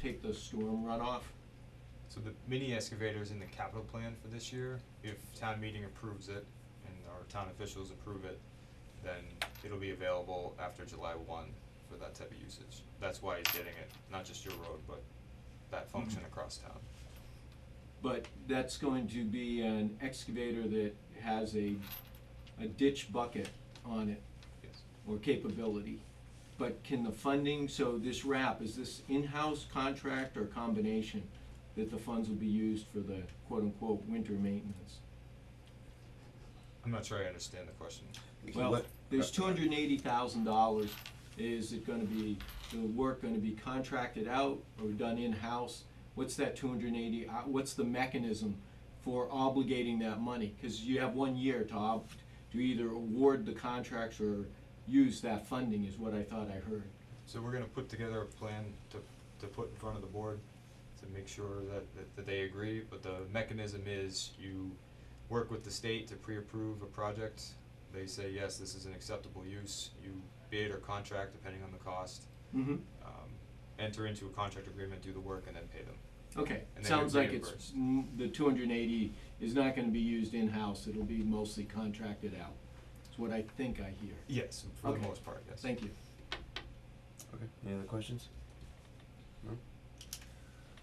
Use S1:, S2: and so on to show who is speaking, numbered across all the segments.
S1: take the storm runoff.
S2: So the mini excavator is in the capital plan for this year, if town meeting approves it and our town officials approve it, then it'll be available after July one for that type of usage. That's why he's getting it, not just your road, but that function across town.
S1: But that's going to be an excavator that has a, a ditch bucket on it
S2: Yes,
S1: or capability. But can the funding, so this wrap, is this in-house contract or combination that the funds will be used for the quote-unquote winter maintenance?
S2: I'm not sure I understand the question.
S3: We can
S1: Well,
S3: let-
S1: there's
S3: uh,
S1: two hundred and eighty thousand dollars, is it gonna be, the work gonna be contracted out or done in-house? What's that two hundred and eighty, uh, what's the mechanism for obligating that money? Cause you have one year to ob, to either award the contracts or use that funding is what I thought I heard.
S2: So we're gonna put together a plan to, to put in front of the board to make sure that, that, that they agree, but the mechanism is you work with the state to pre-approve a project. They say, yes, this is an acceptable use, you bid or contract depending on the cost,
S1: Mm-hmm.
S2: um, enter into a contract agreement, do the work and then pay them.
S1: Okay,
S2: And then
S1: sounds
S2: you're
S1: like it's,
S2: reimbursed.
S1: mm, the two hundred and eighty is not gonna be used in-house, it'll be mostly contracted out. That's what I think I hear.
S2: Yes, for the
S1: Okay.
S2: most part, yes.
S1: Thank you.
S3: Okay, any other questions? No?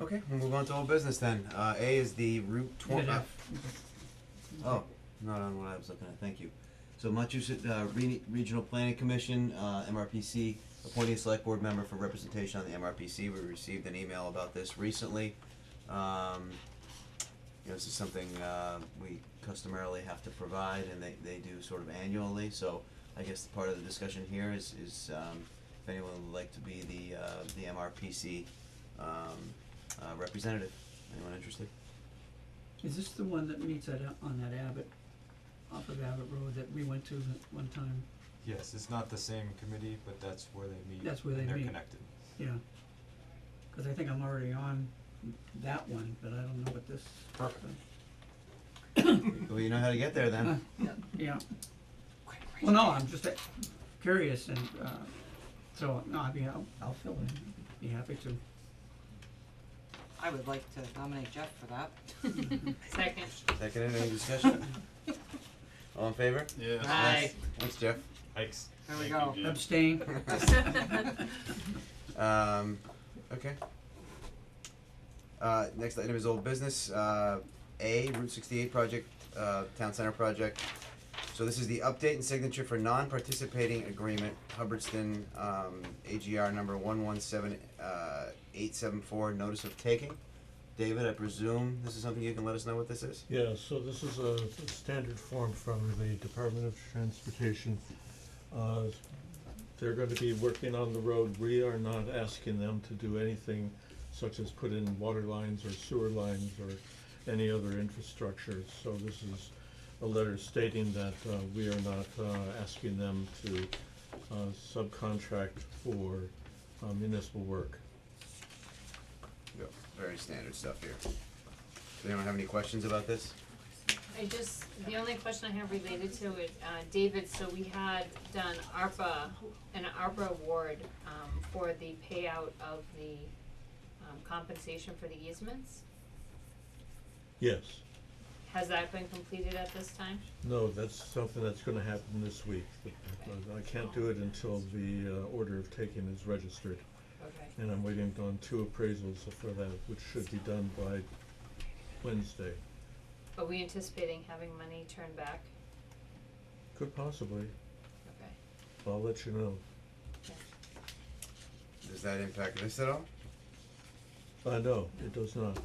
S3: Okay, we'll move on to old business then. Uh, A is the Route twenty. Oh, not on what I was looking at, thank you. So Montchusett, uh, Re- Regional Planning Commission, uh, MRPC, appointing a select board member for representation on the MRPC. We received an email about this recently. Um, you know, this is something, uh, we customarily have to provide and they, they do sort of annually, so I guess the part of the discussion here is, is, um, if anyone would like to be the, uh, the MRPC, um, uh, representative. Anyone interested?
S4: Is this the one that meets at, on that Abbott, off of Abbott Road that we went to that one time?
S2: Yes, it's not the same committee, but that's where they meet
S4: That's where they
S2: and they're
S4: meet.
S2: connected.
S4: Yeah. Cause I think I'm already on that one, but I don't know what this.
S2: Perfect.
S3: Well, you know how to get there then.
S4: Yeah. Well, no, I'm just uh, curious and, uh, so, no, I mean, I'll, I'll fill in, be happy to.
S5: I would like to nominate Jeff for that.
S6: Second.
S3: Second, any discussion? All in favor?
S6: Aye.
S3: Thanks, Jeff.
S2: Thanks.
S5: There we go.
S4: Abstain.
S3: Um, okay. Uh, next item is old business, uh, A, Route sixty-eight project, uh, Town Center project. So this is the update and signature for non-participating agreement, Hubbardston, um, AGR number one one seven, uh, eight seven four, notice of taking. David, I presume this is something you can let us know what this is?
S7: Yeah, so this is a standard form from the Department of Transportation. Uh, They're gonna be working on the road, we are not asking them to do anything such as put in water lines or sewer lines or any other infrastructure. So this is a letter stating that uh, we are not uh, asking them to uh, subcontract for uh, municipal work.
S3: Yep. Very standard stuff here. Does anyone have any questions about this?
S6: I just, the only question I have related to it, uh, David, so we had done ARPA, an ARPA award, um, for the payout of the, um, compensation for the easements.
S7: Yes,
S6: Has that been completed at this time?
S7: no, that's something that's gonna happen this week. I can't do it until the uh, order of taking is registered.
S6: Okay.
S7: And I'm waiting on two appraisals for that, which should be done by Wednesday.
S6: Are we anticipating having money turned back?
S7: Could possibly,
S6: Okay.
S7: I'll let you know.
S3: Does that impact this at all?
S7: Uh, no, it does not.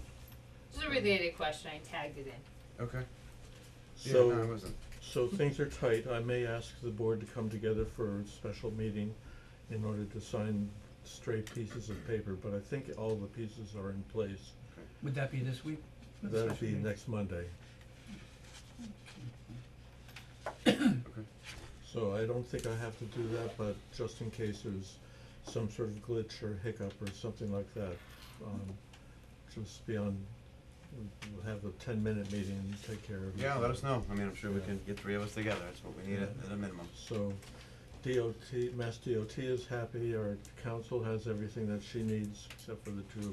S6: Just a related question, I tagged it in.
S3: Okay. yeah, no, it
S7: So,
S3: wasn't.
S7: so things are tight. I may ask the board to come together for a special meeting in order to sign stray pieces of paper, but I think all the pieces are in place.
S4: Would that be this week?
S7: That'll be next Monday.
S3: Okay.
S7: So I don't think I have to do that, but just in case there's some sort of glitch or hiccup or something like that, um, just be on, we'll have a ten minute meeting and take care of it.
S3: Yeah, let us know. I mean, I'm sure we
S7: Yeah.
S3: can get three of us together. That's what we need at, at a minimum.
S7: So DOT, Mass DOT is happy, our council has everything that she needs except for the two